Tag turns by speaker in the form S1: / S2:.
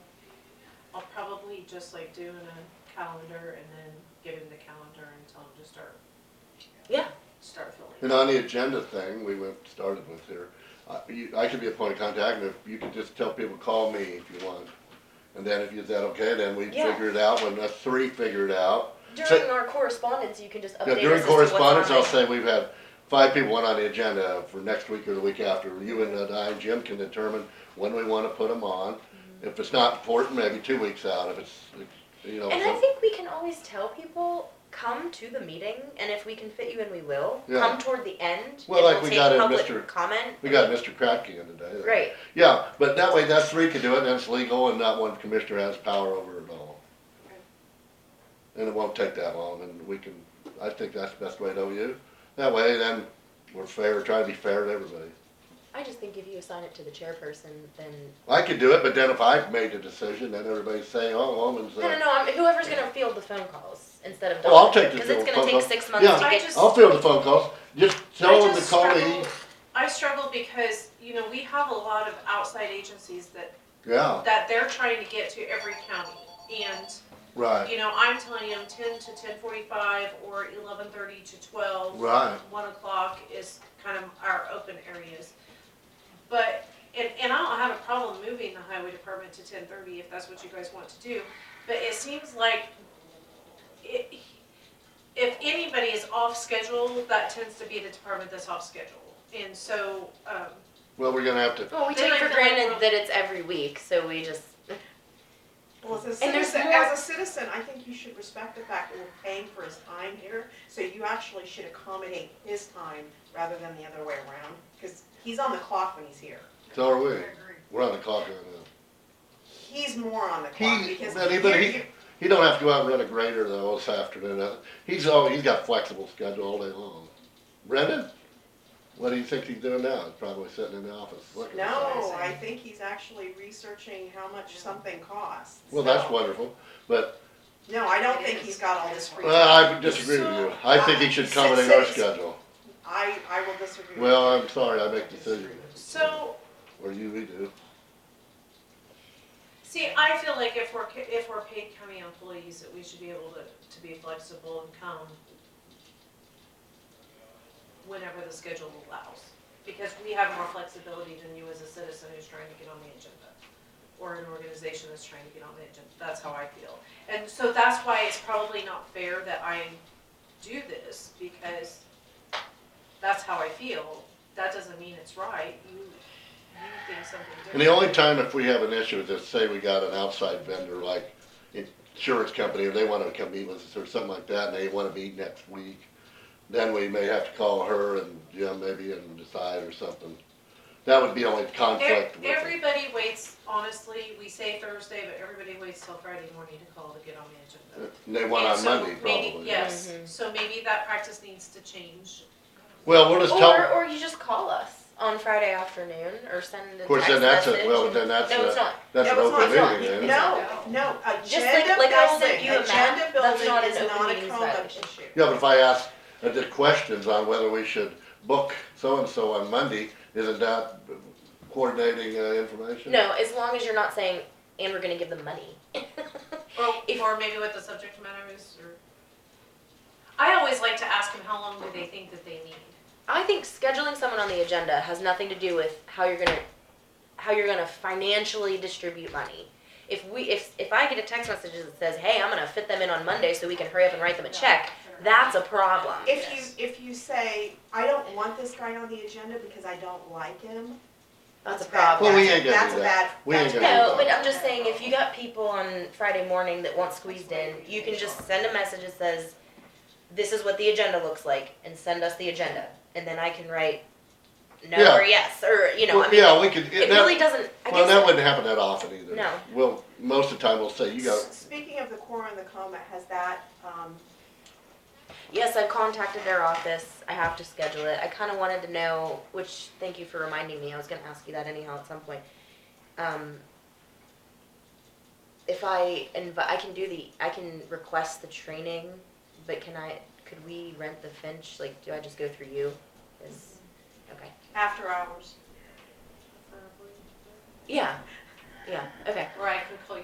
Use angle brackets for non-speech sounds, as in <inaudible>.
S1: just like doing a calendar and then giving the calendar and tell them to start,
S2: Yeah,
S1: start filling.
S3: And on the agenda thing, we went, started with here, I, you, I could be a point of contact, and if you could just tell people, call me if you want. And then if you said, okay, then we
S2: Yeah.
S3: figure it out, when us three figure it out.
S2: during our correspondence, you can just update
S3: Yeah,
S2: us
S3: during
S2: as to what's
S3: correspondence,
S2: on
S3: I'll
S2: it.
S3: say we've had five people on the agenda for next week or the week after, you and I and Jim can determine when we wanna put them on.
S2: Mm-hmm.
S3: If it's not important, maybe two weeks out, if it's, you know,
S2: And I
S3: so,
S2: think we can always tell people come to the meeting, and if we can fit you in, we will.
S3: Yeah.
S2: Come toward the end.
S3: Well,
S2: and
S3: like we
S2: we'll take
S3: got in
S2: public
S3: Mr.
S2: comment.
S3: we got Mr. Kratky in today.
S2: Right.
S3: Yeah, but that way, that's three can do it, and it's legal, and not one commissioner has power over it all. And it won't take that long, and we can, I think that's the best way to do it. That way, then, we're fair, try to be fair to everybody.
S2: I just think if you assign it to the chairperson, then
S3: I could do it, but then if I made the decision, then everybody's saying, oh, woman's,
S2: no, no,
S3: uh,
S2: no. I'm, whoever's gonna field the phone calls instead of
S3: Well, I'll
S2: Dawn,
S3: take the
S2: because it's
S3: field
S2: gonna
S3: phone
S2: take
S3: call.
S2: six months
S3: Yeah.
S2: to
S1: I
S2: get.
S1: just-
S3: I'll field the phone calls, just tell
S1: I
S3: them to
S1: just
S3: call me.
S1: struggle- I struggle because, you know, we have a lot of outside agencies that,
S3: Yeah,
S1: that they're trying to get to every county. And
S3: right,
S1: You know, I'm telling them ten to ten forty-five or eleven thirty to twelve.
S3: Right.
S1: One o'clock is kind of our open areas. But, and, and I don't have a problem moving the highway department to ten thirty if that's what you guys want to do. But it seems like it, if anybody is off schedule, that tends to be the department that's off schedule. And so, um,
S3: well, we're gonna have to,
S2: Well, we
S1: Then
S2: take
S1: I
S2: for
S1: feel like
S2: granted
S1: we're-
S2: that it's every week, so we just.
S4: Well, as a
S2: And there's
S4: citizen,
S2: more-
S4: as a citizen, I think you should respect the fact that we're paying for his time here, so you actually should accommodate his time rather than the other way around, because he's on the clock when he's here.
S3: so are we, we're on the clock right now.
S4: He's more on the clock
S3: He,
S4: because.
S3: but he,
S4: you're-
S3: but he,
S4: you're-
S3: he don't have to go out and run a grader though this afternoon. Uh, He's all, he's got flexible schedule all day long. Brendan, what do you think he's doing now? He's probably sitting in the office looking. at something.
S4: No, I think he's actually researching how much something costs.
S3: Well, that's
S4: so-
S3: wonderful, but
S4: No, I don't think he's got all this free
S3: well, I
S4: time.
S3: disagree with you. I think he should accommodate our schedule.
S4: I, I will disagree. with
S3: Well,
S4: you.
S3: I'm sorry, I make decisions,
S1: so
S3: or you, we do.
S1: See, I feel like if we're, ca- if we're paid county employees, that we should be able to, to be flexible and come whenever the schedule allows, because we have more flexibility than you as a citizen who's trying to get on the agenda, or an organization that's trying to get on the agenda, that's how I feel. And so that's why it's probably not fair that I do this, because that's how I feel, that doesn't mean it's right, you, you think something different.
S3: And the only time if we have an issue with this, say we got an outside vendor like insurance company, or they wanna come meet with us or something like that, and they wanna meet next week, then we may have to call her and Jim maybe and decide or something. That would be only conflict with it.
S1: Everybody waits, honestly, we say Thursday, but everybody waits till Friday morning to call to get on the agenda.
S3: And They want
S1: And
S3: Uh, on
S1: so
S3: Monday
S1: maybe-
S3: probably.
S1: Yes,
S2: Mhm.
S1: so maybe that practice needs to change.
S3: Well, we'll just
S2: Or,
S3: tell,
S2: or you just call us on Friday afternoon, or send a
S3: of course,
S2: text
S3: then that's
S2: message.
S3: a, well, then that's
S2: no, it's
S3: a,
S2: not.
S3: that's
S4: That
S3: an
S4: was
S3: open
S2: not-
S3: meeting then.
S4: No, no,
S2: Just
S4: agenda
S2: like- like I sent
S4: building,
S2: you a map,
S4: agenda
S2: that's
S4: building
S2: not
S4: is
S2: an open
S4: not a
S2: meetings
S4: conduct
S2: violation.
S4: issue.
S3: Yeah, but if I ask uh, the questions on whether we should book so-and-so on Monday, isn't that coordinating uh, information?
S2: No, as long as you're not saying, and we're gonna give them money. <laughs>
S1: Or,
S2: If-
S1: or maybe what the subject matter is, or. I always like to ask them how long do they think that they need.
S2: I think scheduling someone on the agenda has nothing to do with how you're gonna how you're gonna financially distribute money. If we if if I get a text message that says, "Hey, I'm gonna fit them in on Monday so we can hurry up and write them a check," that's a problem.
S4: If you, if you say, I don't want this guy on the agenda because I don't like him,
S2: that's a
S4: bad.
S2: problem.
S3: Well, we ain't gonna
S4: That's
S3: do
S4: a
S3: that.
S4: bad-
S3: We ain't
S4: that's a
S3: gonna do that.
S2: No, but I'm just saying, if you got people on Friday morning that want squeezed in, you can just send a message that says, "This is what the agenda looks like," and send us the agenda, and then I can write no
S3: Yeah.
S2: or yes or you know.
S3: Well,
S2: I mean,
S3: yeah, we could.
S2: it
S3: that-
S2: really doesn't. I
S3: well,
S2: guess
S3: that wouldn't happen that often either.
S2: No.
S3: Well, most of the time we'll say you got.
S4: S- Speaking of the core and the coma, has that, um,
S2: Yes, I've contacted their office. I have to schedule it. I kind of wanted to know, which, thank you for reminding me. I was going to ask you that anyhow at some point. Um, if I invite, I can do the, I can request the training, but can I, could we rent the Finch? Like, do I just go through you? Is, okay.
S4: after hours?
S2: Yeah. Yeah. Okay.
S1: Or I can call you